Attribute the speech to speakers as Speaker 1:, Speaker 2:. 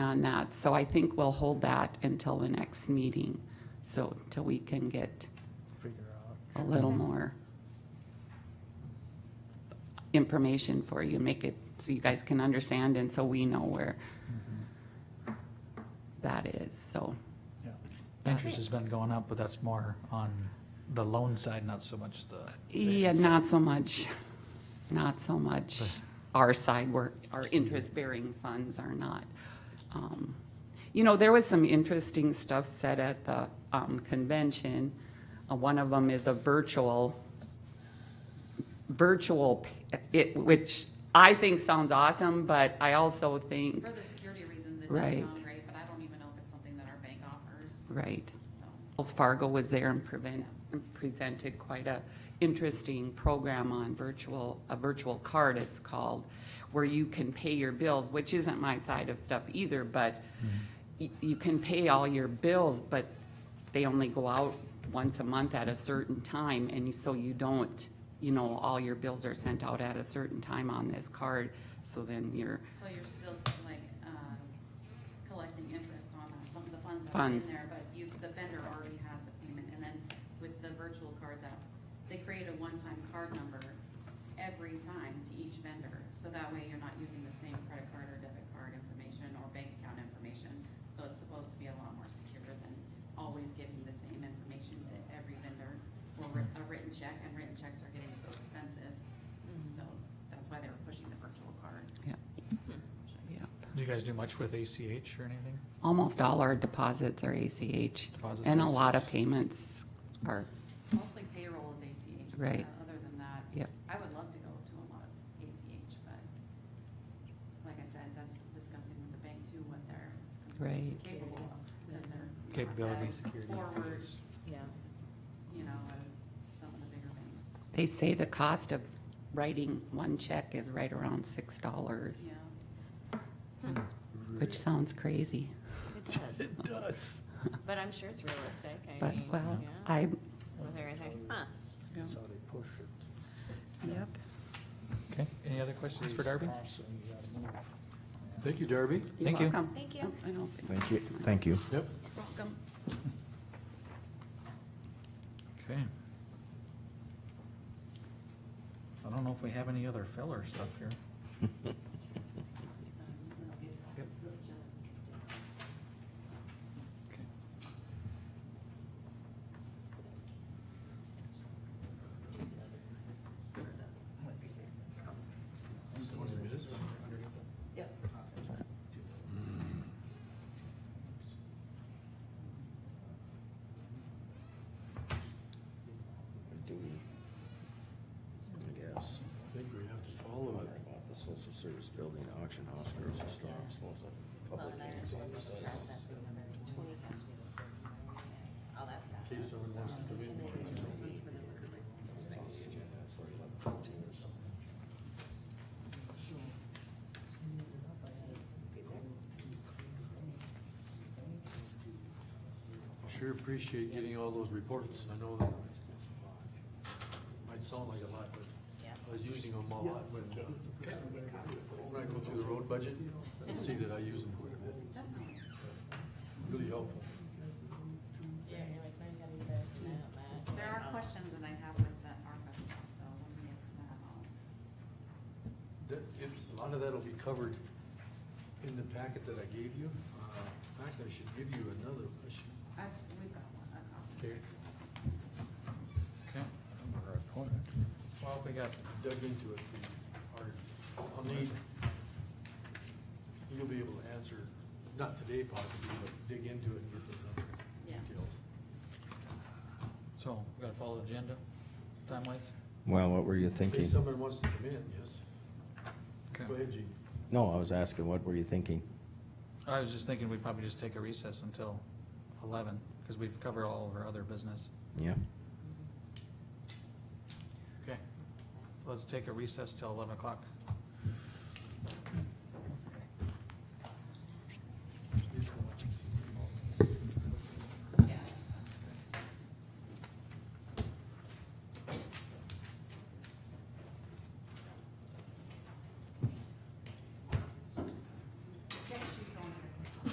Speaker 1: on that, so I think we'll hold that until the next meeting, so, till we can get
Speaker 2: figure
Speaker 1: a
Speaker 2: out.
Speaker 1: little more information for you, make it so you guys can understand and so we know where that is, so.
Speaker 2: Yeah. Interest has been going up, but that's more on the loan side, not so much the.
Speaker 1: Yeah,
Speaker 2: savings.
Speaker 1: not so much, not so much. Our side work, our interest-bearing funds are not. um, You know, there was some interesting stuff said at the um, convention. Uh, One of them is a virtual, virtual, p- it, which I think sounds awesome, but I also think,
Speaker 3: For the security reasons, it
Speaker 1: Right.
Speaker 3: does sound great, but I don't even know if it's something that our bank offers,
Speaker 1: right.
Speaker 3: so.
Speaker 1: Wells Fargo was there and prevent, presented quite a interesting program on virtual, a virtual card it's called, where you can pay your bills, which isn't my side of stuff either, but
Speaker 2: Mm-hmm.
Speaker 1: you, you can pay all your bills, but they only go out once a month at a certain time, and you- so you don't, you know, all your bills are sent out at a certain time on this card, so then you're,
Speaker 3: So you're still like, um, collecting interest on that, fun- the funds that are in
Speaker 1: Funds.
Speaker 3: there, but you, the vendor already has the payment, and then with the virtual card that, they create a one-time card number every time to each vendor, so that way you're not using the same credit card or debit card information or bank account information, so it's supposed to be a lot more secure than always giving the same information to every vendor or writ- a written check, and written checks are getting so expensive, so that's why they were pushing the virtual card.
Speaker 1: yeah, yeah.
Speaker 2: Do you guys do much with ACH or anything?
Speaker 1: Almost all our deposits are ACH,
Speaker 2: Deposits
Speaker 1: and
Speaker 2: are
Speaker 1: a lot
Speaker 2: ACH.
Speaker 1: of payments are,
Speaker 3: Mostly payroll is ACH. but uh,
Speaker 1: Right.
Speaker 3: Other than that.
Speaker 1: Yep.
Speaker 3: I would love to go to a lot of ACH, but like I said, that's discussing with the bank too, what they're
Speaker 1: Right.
Speaker 3: capable of. 'cause they're not
Speaker 2: Capability,
Speaker 3: as
Speaker 2: security.
Speaker 3: Forward,
Speaker 2: fees.
Speaker 4: Yeah.
Speaker 3: you know, as some of the bigger banks.
Speaker 1: they say the cost of writing one check is right around six dollars,
Speaker 3: Yeah.
Speaker 1: which sounds crazy,
Speaker 4: It does,
Speaker 2: It does.
Speaker 4: but I'm sure it's realistic. I
Speaker 1: but,
Speaker 4: mean,
Speaker 1: well,
Speaker 4: yeah.
Speaker 1: I,
Speaker 4: Well, there is, huh.
Speaker 5: That's how they push it.
Speaker 1: yep.
Speaker 2: Okay, any other questions for Darby?
Speaker 5: Constantly, you gotta move.
Speaker 6: Thank you, Darby.
Speaker 1: You're
Speaker 2: Thank you.
Speaker 1: welcome.
Speaker 4: Thank you.
Speaker 1: Oh, I don't think
Speaker 7: Thank you,
Speaker 1: that's mine.
Speaker 7: thank you.
Speaker 6: Yep.
Speaker 3: Welcome.
Speaker 2: Okay. I don't know if we have any other filler stuff here. Okay.
Speaker 5: Do we? I guess.
Speaker 6: I think we have to follow it.
Speaker 5: About the social service building, auction house, grocery store, public hearings, all this other stuff.
Speaker 6: In case someone wants to come in.
Speaker 5: It's on the agenda for 11:15 or something.
Speaker 6: Sure appreciate getting all those reports. I know that might sound like a lot, but I was using them a lot when, uh, when I go through the road budget and see that I use them quite a bit. Really helpful.
Speaker 3: There are questions that I have with the ARPA stuff, so when we get to that, I'll,
Speaker 6: That, it, a lot of that'll be covered in the packet that I gave you. Uh, In fact, I should give you another, I should
Speaker 3: i we've got one, a copy.
Speaker 6: Okay,
Speaker 2: Okay. Well, if we got,
Speaker 6: dug into it pretty hard. I'll need, you'll be able to answer, not today possibly, but dig into it and get those other
Speaker 3: Yeah.
Speaker 6: details.
Speaker 2: so we gotta follow the agenda, time wise?
Speaker 7: Well, what were you
Speaker 6: In case
Speaker 7: thinking?
Speaker 6: someone wants to come in, yes. Go ahead, Gene.
Speaker 7: No, I was asking, what were you thinking?
Speaker 2: I was just thinking we'd probably just take a recess until eleven, cause we've covered all of our other business.
Speaker 7: Yeah,
Speaker 2: Okay, let's take a recess till eleven o'clock.